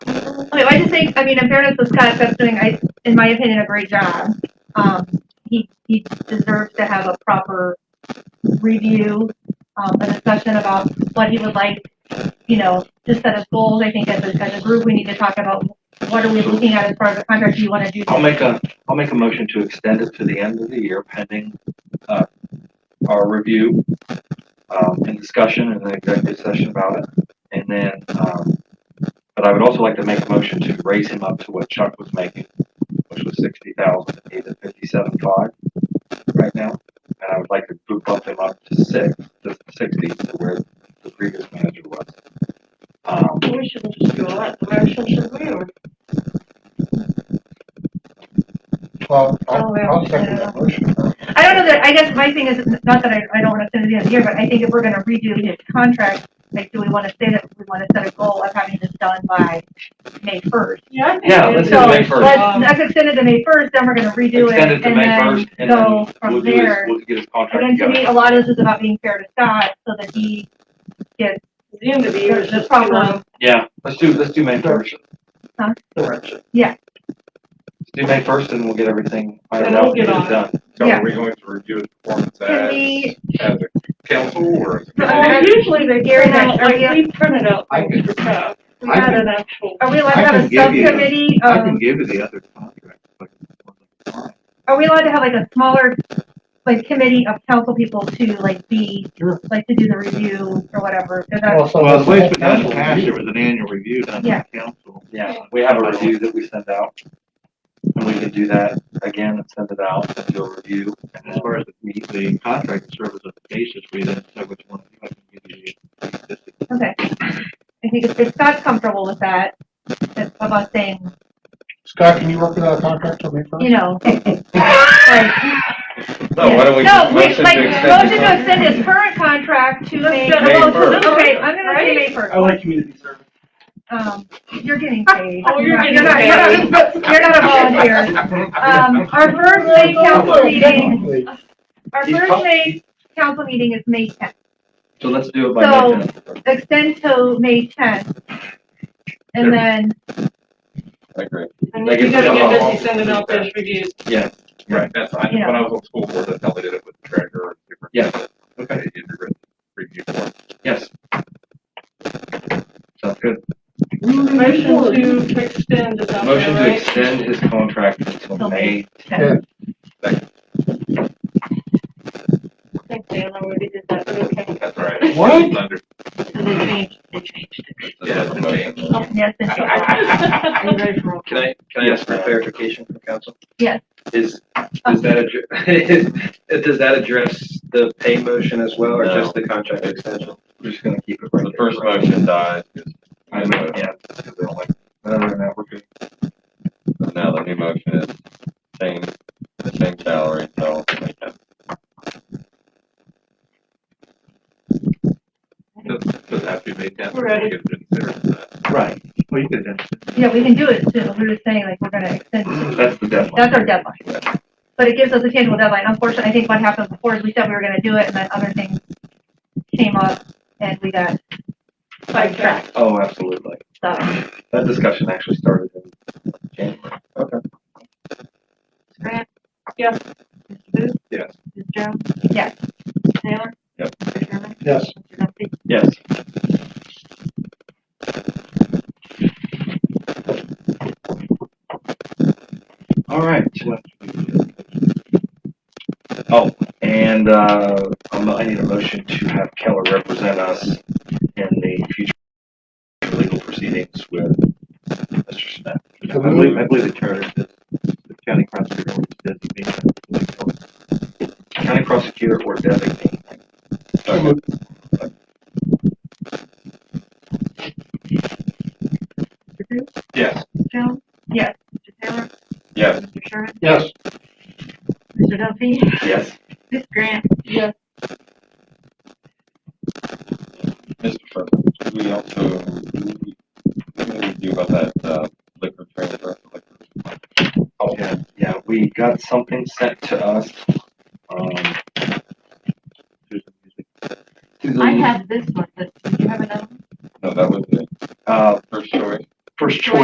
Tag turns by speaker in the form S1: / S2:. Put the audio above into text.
S1: I just think, I mean, in fairness, this concept's doing, I, in my opinion, a great job. Um, he, he deserves to have a proper review, um, a discussion about what he would like, you know, to set as goals. I think as a, as a group, we need to talk about what are we looking at as far as the contract you wanna do.
S2: I'll make a, I'll make a motion to extend it to the end of the year pending, uh, our review, um, and discussion in the executive session about it. And then, um, but I would also like to make a motion to raise him up to what Chuck was making, which was sixty thousand, eight at fifty-seven five right now. And I would like to boot bump him up to six, to sixty, to where the previous manager was. Um,
S3: We should just go out the motion, should we, or?
S4: Well,
S3: Oh,
S4: I'll,
S3: yeah.
S4: I'll second that motion.
S1: I don't know that, I guess my thing is, not that I, I don't wanna send it the end of the year, but I think if we're gonna redo his contract, like, do we wanna say that we wanna set a goal of having this done by May first?
S3: Yeah.
S2: Yeah, let's
S1: do
S2: May 1st.
S1: Let's, let's extend it to May first, then we're gonna redo it,
S2: extend it to
S1: and
S2: May first,
S1: then
S2: and then
S1: go
S2: we'll
S1: from
S2: we'll do his,
S1: there.
S2: we'll get his
S1: And
S2: contract
S1: then to
S2: together.
S1: me, a lot of this is about being fair to Scott, so that he gets
S3: The end of the year is
S1: the
S3: just too
S1: proper,
S3: long.
S2: Yeah, let's do, let's do May first.
S1: Huh? Yeah.
S2: Let's do May first and we'll get everything ironed
S3: And we'll
S2: out and
S3: get
S2: get
S3: on
S2: it
S3: it.
S2: done.
S5: So
S1: Yeah.
S5: are we going to review his performance
S1: can
S5: as,
S1: we,
S5: as a council or? as a
S1: Well,
S5: committee?
S3: Well, usually they
S1: Gary
S3: print out,
S1: and I-
S3: like, we printed out
S6: I
S3: the stuff. We
S6: I
S3: had
S6: can-
S3: an actual,
S1: are we allowed to
S6: I
S1: have
S6: can
S1: a
S6: give you-
S1: subcommittee um,
S6: I
S1: of
S6: can give you the other contract, but
S1: are we allowed to have like a smaller, like committee of council people to like be,
S4: Sure.
S1: like to do the review or whatever? 'Cause that's-
S4: Well, so
S6: Well,
S4: the
S6: at least
S4: whole
S6: we got in
S4: council
S6: the past,
S4: review.
S6: there was an annual review done by the council.
S2: Yeah, we have a review that we send out. And we can do that again and send it out, and do a review. and
S6: As
S2: then-
S6: far as the, the contract service as a basis, we didn't say which one. we might give you.
S1: Okay. I think if- if Scott's comfortable with that, that- of us saying,
S4: Scott, can you work without a contract till May
S1: you
S4: first?
S1: know, like.
S5: No, why don't
S1: No,
S5: we just
S1: wait,
S5: motion
S1: like, motion
S5: to extend
S1: to
S5: it?
S1: extend his current contract to May.
S3: get
S5: a May motion first.
S3: to
S1: Okay,
S3: it,
S1: I'm gonna say
S3: right?
S1: May first.
S7: I like community service.
S1: Um, you're getting paid.
S3: Oh, you're
S1: not-
S3: getting
S1: not- you're not- You're not a volunteer. Um, our first May council meeting, our
S2: He's
S1: first
S2: prob-
S1: May council meeting is May tenth.
S2: So let's do it by
S1: So-
S2: May tenth.
S1: extend till May tenth. And then,
S5: I agree.
S3: and
S2: Like,
S3: if you
S2: it's
S3: gotta
S2: still
S3: get
S5: long.
S3: busy sending out those reviews.
S5: Right, that's, I, when I was on school board, that's how they did it with the treasurer. and different-
S2: Yeah.
S5: Okay, you did re- review board.
S2: Yes. Sounds good.
S3: Mm-hmm. Motion to extend is out
S2: Motion
S3: there,
S2: to
S3: right?
S2: extend his contract until
S1: Till
S2: May.
S1: May tenth.
S3: I think they already did that, but okay.
S5: That's right.
S4: What?
S5: Under-
S3: So they changed, they changed it.
S5: Yeah, that's a motion.
S1: Oh, yes, and
S3: Are you ready for?
S2: Can I, can I ask for clarification from council?
S1: Yes.
S8: Is, does that, addre- is- does that address the pay motion as well, or
S2: No.
S8: just the contract extension?
S2: We're just gonna keep it right
S5: The
S2: there.
S5: first motion dies. 'cause-
S2: I know, yeah.
S5: because they don't like-
S2: No, no, no, we're good.
S5: and Now the new motion is same, the same salary, so. they can-
S6: Doesn't, doesn't have to be made that.
S3: Ready.
S2: Right,
S6: Well, you could have done.
S1: yeah, we can do it too, we're just saying like, we're gonna extend,
S2: that's the deadline.
S1: that's our deadline. But it gives us a tangible deadline, unfortunately, I think what happened before is we said we were gonna do it, and then other things came up, and we got sidetracked,
S2: Oh, absolutely.
S1: so.
S2: That discussion actually started in January. Okay.
S3: Grant? Yes. Mr. Booth?
S5: Yes.
S3: Ms. Jones?
S1: Yes.
S3: Taylor?
S5: Yep.
S3: Mr. Sherman?
S4: Yes.
S3: Mr. Duffy?
S2: Yes. All right. Oh, and, uh, I'm- I need a motion to have Keller represent us in the future legal proceedings with Mr. Smith.
S6: I believe, I believe the charter says the county prosecutor always designated.
S2: County prosecutor or designate.
S3: Mr. Booth?
S5: Yes.
S3: Ms. Jones?
S1: Yes.
S3: Mr. Taylor?
S5: Yes.
S3: Mr. Sherman?
S4: Yes,
S3: Mr. Duffy?
S2: Yes.
S3: Ms. Grant?
S1: Yes.
S5: Mr. President, should we also, do we, what do we do about that uh, liquor transfer? Liquor-
S2: Oh, yeah, yeah, we got something sent to us Mm. Uh,